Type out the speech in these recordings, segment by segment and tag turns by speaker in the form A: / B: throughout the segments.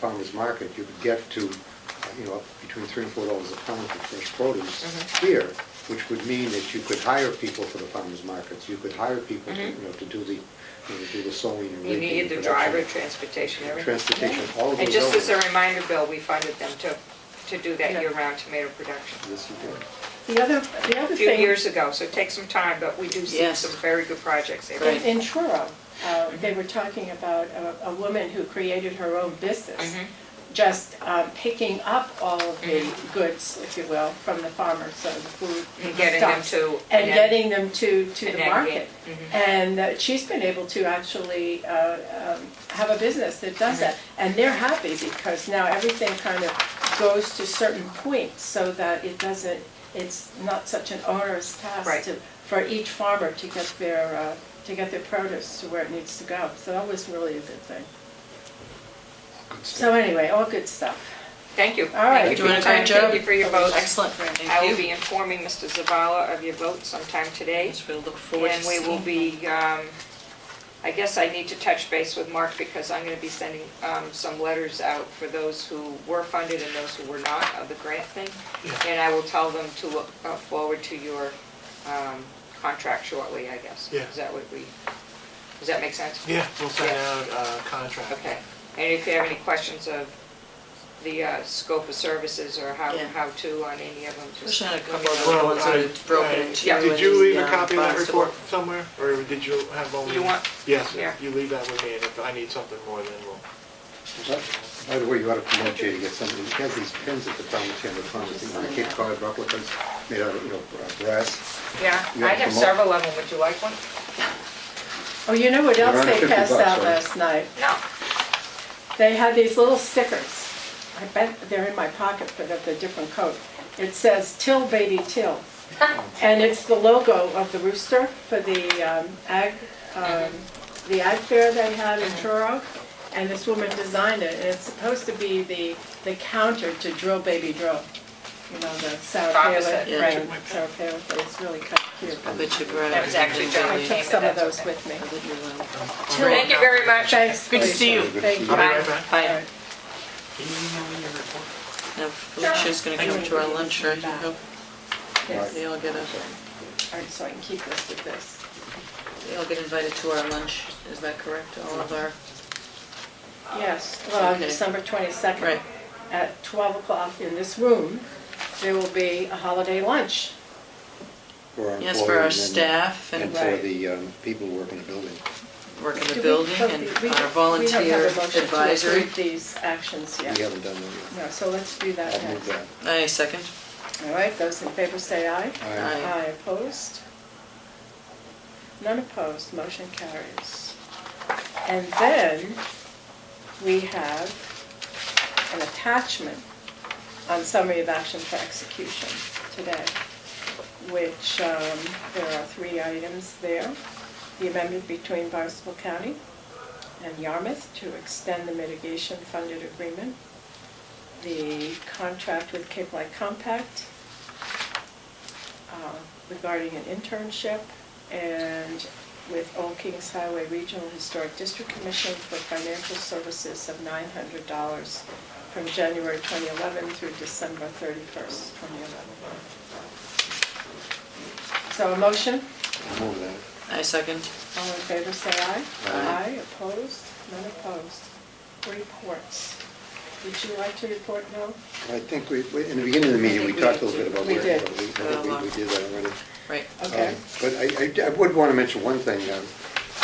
A: farmer's market, you could get to, uh, you know, between three and four dollars a pound for fresh produce
B: Mhm.
A: here, which would mean that you could hire people for the farmer's markets, you could hire people, to, you know, to do the, you know, to do the sowing and
B: Mm-hmm. You
A: reaping.
B: need the
A: and
B: driver,
A: production,
B: transportation, everything.
A: Transportation, all of those.
B: And just as a
A: elements.
B: reminder, Bill, we funded them to, to do that year-round tomato production.
A: Yes, you did.
C: The other, the
B: A
C: other
B: few
C: thing.
B: years ago, so it takes some time, but we do see
D: Yes.
B: some very good projects there.
C: In in Truro, uh, they were talking about a- a woman who created her own business,
B: Mhm.
C: just um, picking up all of the goods, if you will, from the farmers, so the food
B: Mm-hmm. And getting them
C: stuffs,
B: to
C: And
B: an ag-
C: getting them to, to
B: an
C: the
B: ag
C: market.
B: gate.
C: And uh, she's been able to actually uh, um, have a business that does that.
B: Mm-hmm.
C: And they're happy because now everything kind of goes to certain points so that it doesn't, it's not such an onerous
B: Right.
C: task to, for each farmer to get their, uh, to get their produce to where it needs to go. So that was really a good thing.
A: Good stuff.
C: So anyway, all good stuff.
B: Thank you.
C: All right.
B: Thank
C: Do
B: you
C: you
B: for your
D: wanna try,
B: time,
D: Joe?
B: thank you for your vote.
D: Excellent, thank you.
B: I will be informing Mr. Zavala of your vote sometime today.
D: Yes, we'll look forward to
B: And we
D: seeing.
B: will be, um, I guess I need to touch base with Mark because I'm going to be sending um, some letters out for those who were funded and those who were not of the grant thing. And I will tell them to look uh, forward to your um, contract shortly, I guess.
E: Yeah.
B: Is that what we, does that make sense?
E: Yeah, we'll send
B: Yeah.
E: out a contract.
B: Okay. And if you have any questions of the uh, scope of services or how,
D: Yeah.
B: how to on any of them, just.
D: Push out a couple of
E: Well,
D: them,
E: it's
D: are
E: a-
D: broken
E: uh,
D: into.
B: Yeah.
E: Did
D: and
E: you leave a
D: the, uh,
E: copy of that
D: box to
E: report
D: work.
E: somewhere, or did you have only?
B: You want-
E: Yes,
B: Yeah.
E: you leave that with me, and if I need something more, then we'll.
A: By the way, you ought to promote Jay to get something, he has these pins at the Falmouth Chamber of Commerce, you know, the Cape Cod replicas, made out of, you know, brass.
B: Yeah,
A: You
B: I
A: have
B: have
A: some more?
B: several of them. Would you like one?
C: Oh, you know what
A: They're
C: else
A: under
C: they
A: 50
C: passed
A: bucks,
C: out
A: right?
C: last night?
B: No.
C: They had these little stickers. I bet they're in my pocket, but of the different coat. It says "Till Baby Till," and it's the logo of the rooster for the um, ag, um, the ag fair they had in
D: Uh-huh.
C: Truro. And this woman designed it, and it's supposed to be the, the counter to Drill Baby Drill. You know, the Sarah
B: Opposite.
C: Palin,
D: Yeah.
C: right, Sarah Palin, it's really kind of cute.
D: I bet you brought
B: That was
D: it.
B: actually John.
C: I took some of those with me.
D: I bet you will.
B: Thank you very much.
C: Thanks.
D: Good to see you.
C: Thank you.
E: I'll be
B: Bye.
E: right back.
D: Bye.
E: Can you email me your report?
D: Now Felicia's gonna come to our lunch, right? I hope
C: Yes.
D: They all get a,
C: All right, so I can keep this with this.
D: they all get invited to our lunch, is that correct? All of our,
C: Yes, well, on
D: Okay.
C: December 22nd.
D: Right.
C: At 12 o'clock in this room, there will be a holiday lunch.
D: yes, for our staff
A: And
D: and
A: for
C: Right.
A: the um, people who work in the building.
D: work in
C: Do
D: the
C: we-
D: building
C: so
D: and
C: we- we-
D: our volunteer
C: We don't have a motion to
D: advisory.
C: approve these actions
A: We
C: yet.
A: haven't done that
C: No, so let's do that
A: yet. I'll move
C: next.
A: that.
D: I second.
C: All right, those in favor say aye.
A: Aye.
D: Aye.
C: Aye opposed? None opposed, motion carries. And then we have an attachment on summary of action for execution today, which um, there are three items there. The amendment between Barnstable County and Yarmouth to extend the mitigation funded agreement, the contract with Cape Light Compact, uh, regarding an internship and with Old Kings Highway Regional Historic District Commission for financial services of $900 from January 2011 through December 31st, 2011. So a motion?
A: I'll move that.
D: I second.
C: All in favor, say aye.
A: Aye.
C: opposed? None opposed? Reports. Would you like to report, No.
A: I think we, we- in the beginning of the meeting, we
D: think we
A: talked a little bit about
C: We
A: where,
C: did.
A: I think we we did that already.
D: Right.
C: Okay.
A: Um, But I- I, I would want to mention one thing. um,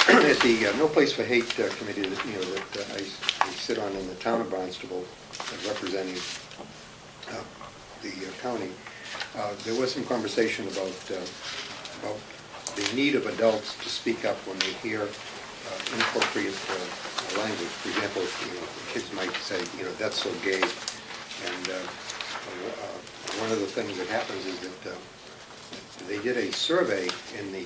A: At the uh, No Place for Hate uh, committee that, you know, that uh, I s- I sit on in the town of Barnstable, uh, representing uh, the uh, county, uh, there was some conversation about, uh, about the need of adults to speak up when they hear uh, inappropriate uh, language. For example, you know, kids might say, you know, that's so gay. And uh, uh, one of the things that happens is that uh, they did a survey in the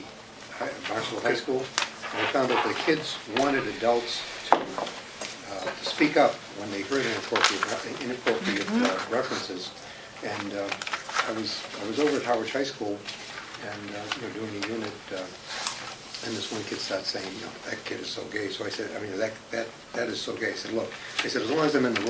A: hi- Barnstable High School, and they found that the kids wanted adults to uh, to speak up when they heard inappropriate, inappropriate uh, references. And uh, I was, I was over at Howard High School and, uh, you know, doing a unit, uh, and this one kid starts saying, you know, that kid is so gay. So I said, I mean, that, that, that is so gay. I said, look, I said, as long as I'm in the room